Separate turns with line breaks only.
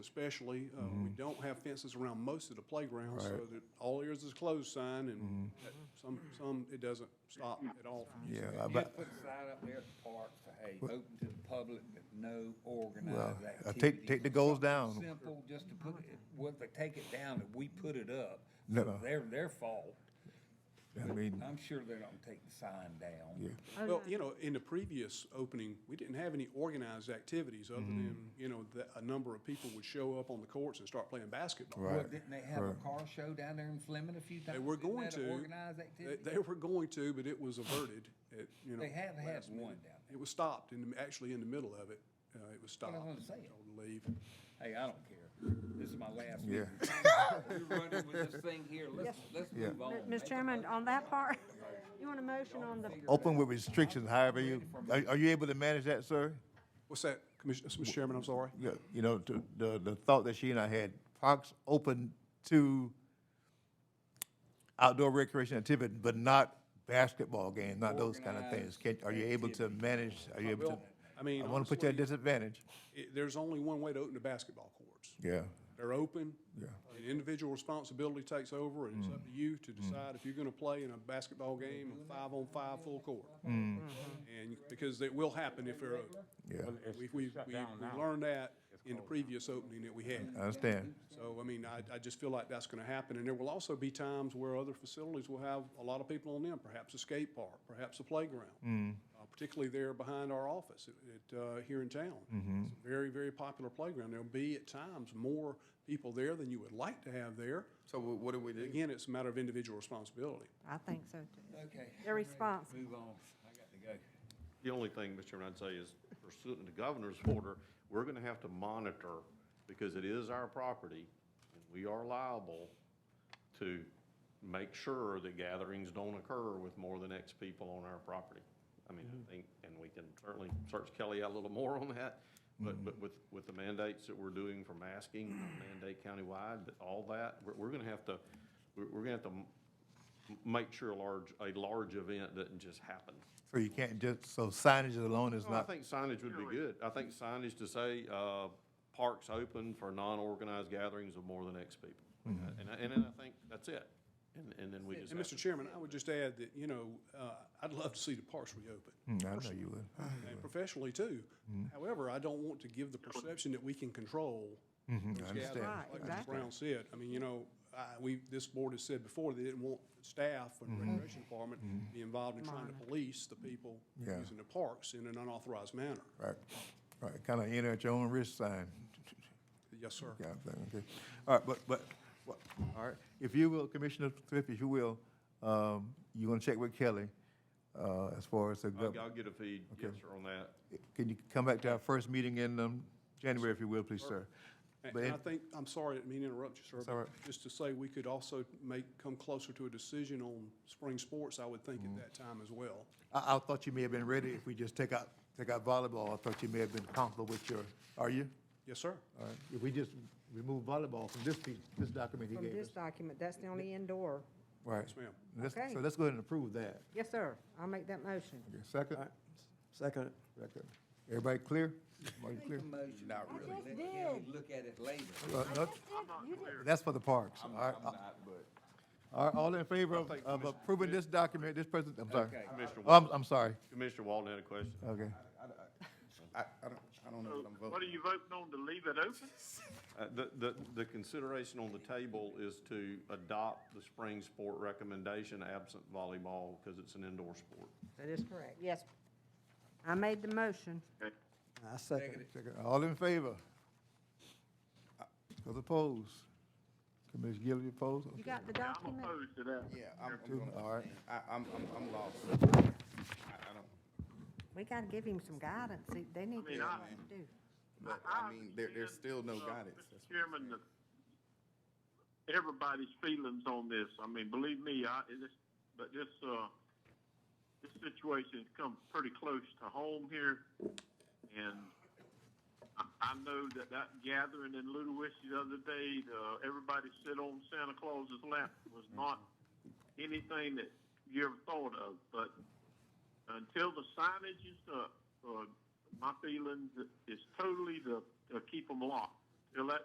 especially. Uh, We don't have fences around most of the playgrounds, so
Mm-hmm. Right. Mm-hmm.
that all areas is closed sign, and at some, some, it doesn't stop at all from using.
Yeah, I
Just
bet-
put a sign up there at the park for, hey, open to the public, but no
well,
organized
uh,
activity.
take, take the goals down.
Simple, just to put it, well, if they take it down, if we put it up,
No.
they're their fault.
I mean,
I'm sure they don't take the sign down.
yeah,
Well, you know, in the previous opening, we didn't have any organized activities other
Mm-hmm.
than, you know, that a number of people would show up on the courts and start playing basketball.
Well,
right.
didn't they have a
right.
car show down there in Fleming a few times?
They were
Isn't
going
that
to.
an Organized
They-
activity?
They were going to, but it was averted at, you know.
They have had
last
one
minute.
down there.
It was stopped in, the- actually in the middle of it. Uh, it was stopped.
I'm saying.
Told to leave.
Hey, I don't care. This is my last
Yeah.
meeting. We're running with this thing here. Let's, let's
Yeah.
move on.
Mr. Chairman, on that part, you want a motion on the,
Open with restrictions, however you, are, are you able to manage that, sir?
What's that, Commissioner, Mr. Chairman, I'm sorry?
Yeah, You know, to- the, the thought that she and I had, parks open to outdoor recreation activity, but not basketball games, not those kind of things. Can, are you able to manage, are you able to?
Well, I mean,
I wanna put you at
honestly,
disadvantage.
it- there's only one way to open the basketball courts.
Yeah,
They're open.
Yeah. Mm.
And individual responsibility takes over, and it's up to you to decide if you're gonna play in a basketball game, a five-on-five full court.
Mm. Mm-hmm.
And, because it will happen if they're open.
yeah,
We, we, we we learned that in the previous opening that we had.
I understand.
So, I mean, I, I just feel like that's gonna happen, and there will also be times where other facilities will have a lot of people on them, perhaps a skate park, perhaps a playground. Uh, Particularly there behind our office at, uh, here in town. It's a Very, very popular playground. There'll be at times more people there than you would like to have there.
So wh- what do we do?
Again, it's a matter of individual responsibility.
I think so too.
Okay.
Their response.
Move on. I got to go.
The only thing, Mr. Chairman, I'd say is pursuant to the governor's order, we're gonna have to monitor, because it is our property, and we are liable to make sure that gatherings don't occur with more than X people on our property. I mean, I think, and we can certainly search Kelly out a little more on that, but, but with, with the mandates that we're doing for masking, mandate countywide, that all that, we're, we're gonna have to, we're, we're gonna have to m- make sure a large, a large event doesn't just happen.
So you can't just, so signage alone is
No, I
not,
think signage would be good. I think signage to say, uh, parks open for non-organized gatherings of more than X people. And, I- and then I think that's it. And, and then we just
And
have
Mr. Chairman, I would just add that, you know, uh, I'd love to see the parks reopen.
Mm, I know you would.
and professionally too.
Mm-hmm.
However, I don't want to give the perception that we can control. those
Mm-hmm, understand.
gatherings.
Right,
Like Mr.
exactly.
Brown said, I mean, you know, I, we, this board has said before, they didn't want staff and
Mm-hmm.
recreation department be involved in trying to police the people
Yeah.
using the parks in an unauthorized manner.
Right, right, kind of enter at your own risk sign.
Yes, sir.
Yeah, I think, okay. All right, but, but, but- all right, if you will, Commissioner Thrift, if you will, um, you gonna check with Kelly, uh, as far as the
I'll, I'll
gov-
get a feed, yes, sir, on that.
Can you come back to our first meeting in, um, January, if you will, please, sir?
And
But
and
in-
I think, I'm sorry, I didn't mean to interrupt you, sir.
It's
but
all right.
Just to say, we could also make, come closer to a decision on spring sports, I would
Mm-hmm.
think, at that time as well.
I, I thought you may have been ready if we just take out, take out volleyball. I thought you may have been comfortable with your, are you?
Yes, sir.
All right, if we just remove volleyball from this piece, this document he
From
gave us.
this document, that's the only indoor.
Right.
ma'am.
Let's-
Okay.
So let's go ahead and approve that.
Yes, sir. I'll make that motion.
Okay, Second?
Second.
Second. Everybody clear? Everybody
Make
clear?
a motion. Not
I really. just
Let Kelly
did.
look at it later.
Uh, no, That's for the parks. All
I'm,
right, uh,
I'm not, but.
all right, all in favor of,
I think
of
Commissioner-
approving this document, this present, I'm sorry.
Okay.
Commissioner
Oh, I'm,
Walton,
I'm sorry,
Commissioner Walton had a question.
okay.
I, I don't, I don't know
So
what I'm
what are
voting.
you voting on, to leave it open?
Uh, the, the, the consideration on the table is to adopt the spring sport recommendation absent volleyball, because it's an indoor sport.
That is correct. Yes. I made the motion.
I second.
Second. All in favor? Those opposed? Commissioner Gillum, you opposed?
You
Okay.
got the
I'm
document?
opposed to that.
Yeah, I'm, I'm,
Two,
gonna-
all right.
I, I'm, I'm, I'm lost. I, I don't,
We gotta give him some guidance. They- They need to know
I-
what to do.
but I mean, there, there's still no
Uh,
guidance.
Mr.
That's-
Chairman, the- everybody's feelings on this, I mean, believe me, I, it is- but this, uh, this situation's come pretty close to home here, and I, I know that that gathering in Ludwig the other day, uh, everybody sit on Santa Claus's lap was not
Mm-hmm.
anything that you ever thought of, but until the signage is up, uh, my feeling is totally to, to keep them locked. Till that